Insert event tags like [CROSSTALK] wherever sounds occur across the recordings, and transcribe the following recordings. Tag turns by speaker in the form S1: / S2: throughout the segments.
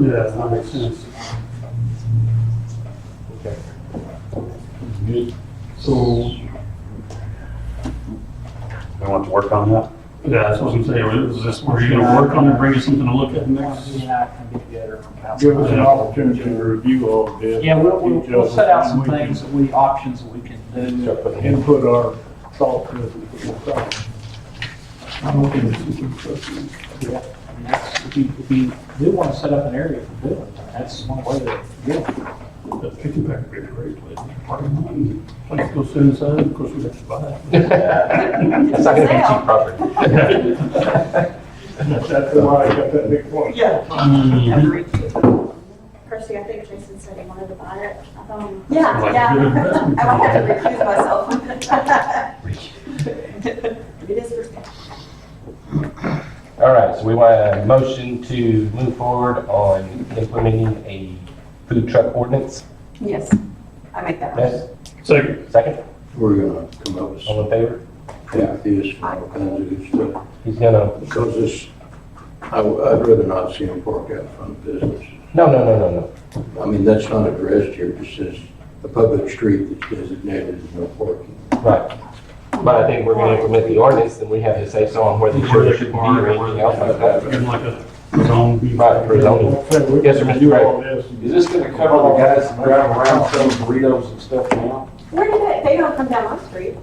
S1: Yeah, that makes sense.
S2: Okay.
S3: Good.
S2: So,
S4: We want to work on that?
S1: Yeah, that's what I'm saying, is this, were you gonna work on it, bring us something to look at next?
S3: give us an opportunity to review all of this.
S5: Yeah, we'll, we'll, we'll
S3: details,
S5: set out some
S3: and we can
S5: things that we, options that we can do.
S2: except for the hand-
S3: Input our thoughts as we go along.
S2: I'm okay with it.
S5: Yeah, I mean, that's, if you, if you do want to set up an area for doing, it, that's one way to do it.
S1: That kitchen back would be a great place, parking lot, and place goes inside, of course, we have to buy it.
S2: That's not gonna be cheap property.
S3: That's why I got that big one.
S5: Yeah.
S6: Percy, I think Jason said he wanted to buy it. I thought he-
S7: Yeah, Um, yeah. [LAUGHS] I might have to recuse [LAUGHS] myself. It is for sale.
S2: [LAUGHS] All right, so we want a motion to move forward on implementing a food truck ordinance.
S7: Yes, I make that. motion.
S2: Yes,
S1: Second,
S2: second,
S8: We're gonna come up with
S2: all
S8: some
S2: in favor?
S8: ideas and all kinds of good stuff,
S2: He's gonna,
S8: because this, I, would rather not see them park out front of business.
S2: no, no, no, no, no.
S8: I mean, that's not addressed here, it just says a public street that's designated as no parking.
S2: Right. But I think we're gonna implement the ordinance, and we have to say so on where the
S1: where
S2: church
S1: they could
S2: should be or
S1: park, where
S2: anything
S1: they
S2: else like that.
S1: could, in like a zone.
S2: Right, for zoning. Yes, sir, Mr. Gray.
S9: Is this gonna cover the guys that drive around selling burritos and stuff now?
S7: Where did they, they don't come down my street.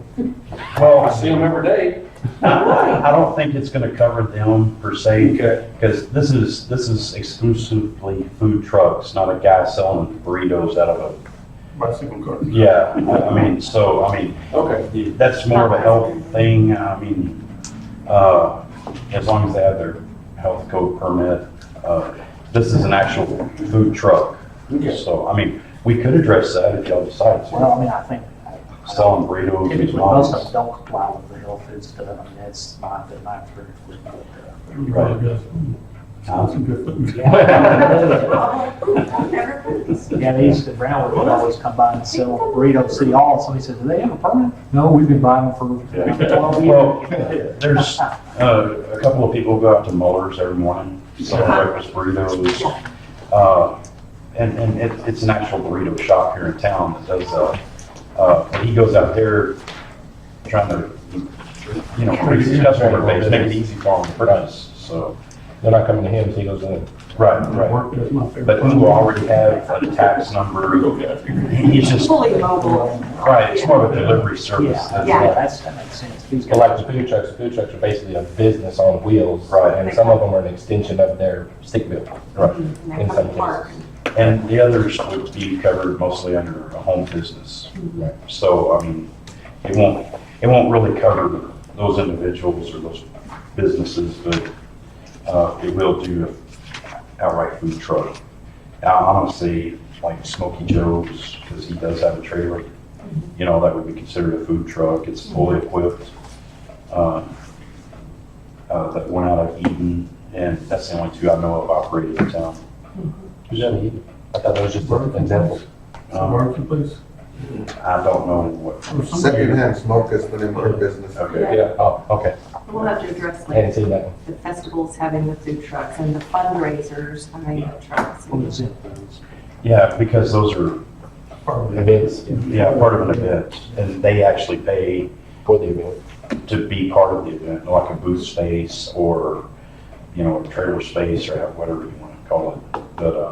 S4: Well,
S9: I see them every day.
S4: I don't think it's gonna cover them per se, because this is, this is exclusively food trucks, not a guy selling burritos out of
S1: Bicycle cart.
S4: a, yeah, I I mean, so, I mean,
S9: Okay.
S4: that's more of a health thing, I mean, uh, as long as they have their health code permit. uh, This is an actual food truck, so, I mean, we could address that if y'all decide to,
S5: Well, I mean, I think
S4: selling burritos.
S5: typically
S4: McDonald's.
S5: most of them don't comply with the health food stuff, I mean, that's not, they're not very.
S1: Right, yes. That's some good
S4: [LAUGHS]
S1: food.
S7: Never comes.
S5: Yeah, they used to, Brown would always come by and sell burritos at City Hall, somebody said, do they have a permit? No, we've been buying them for twelve
S4: Well,
S5: years.
S4: [LAUGHS] there's uh, a couple of people go out to Muller's every morning, sell breakfast burritos. Uh, And, and it- it's an actual burrito shop here in town that does, uh, uh, and he goes out there trying to, you know, for his customer base, make it easy for them to purchase, so.
S2: They're not coming to him, so he goes in.
S4: Right, right.
S1: Work, that's my favorite.
S4: But who already have a tax number, he's just,
S7: Fully mobile.
S4: right, it's more of a delivery service.
S5: Yeah,
S4: than-
S5: yeah, that's, that makes sense. These
S2: But like
S5: guys,
S2: the food trucks, the food trucks are basically a business on wheels.
S4: Right.
S2: And some of them are an extension of their stick bill.
S7: And they
S2: In
S7: come
S2: some
S7: to park.
S4: And the others would be covered mostly under a home business. So, I mean, it won't, it won't really cover those individuals or those businesses, but uh, it will do a outright food truck. Now, I'm gonna say like Smoky Joe's, because he does have a trailer, you know, that would be considered a food truck. It's fully equipped. uh, uh, That went out of Eden, and that's the only two I know of operating in town.
S2: Who's that? I
S4: Uh,
S2: thought that was just an example.
S1: Uh, Marketplace.
S4: Um, I don't know what.
S1: or something.
S10: Secondhand smoke has been in my business.
S4: Okay.
S2: Yeah, oh, okay.
S7: We'll have to address
S2: I hadn't
S7: like
S2: seen that one.
S7: the festivals having the food trucks and the fundraisers having the trucks.
S5: what is it?
S4: Yeah, because those are,
S2: Events
S4: yeah, part of an event, and they actually pay
S2: for the event.
S4: to be part of the event, like a booth space or, you know, a trailer space or whatever you want to call it. But, uh,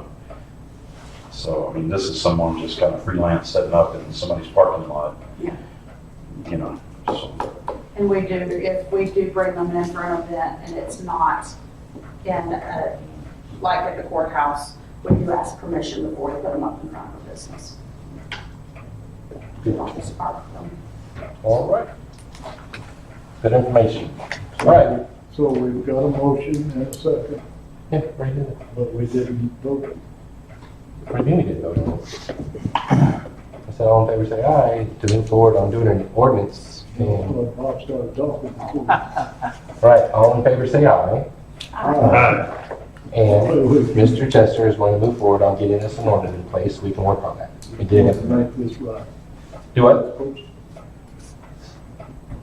S4: so, I mean, this is someone just kind of freelance setting up in somebody's parking lot.
S7: Yeah.
S4: You know, so,
S6: And we do, if we do bring them in for an event and it's not in, a- like at the courthouse, we do ask permission before we put them up in front of a business. We don't just park them.
S2: All right. Good information. All right.
S3: So we've got a motion and a second,
S2: Yeah, pretty good.
S3: but we didn't vote.
S2: Pretty good, we did though. I said, all in favor, say aye, to move forward on doing an ordinance. And,
S3: But Bob started talking before.
S2: right, all in favor, say aye.
S1: Right.
S2: And Mr. Chester is going to move forward on getting us an ordinance in place. We can work on that. We did
S3: Let's
S2: it.
S3: Make this right.
S2: Do what?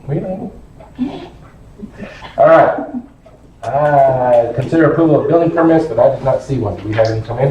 S2: We don't. All right. Uh, Consider approval of building permits, but I did not see one. Do we have any come in?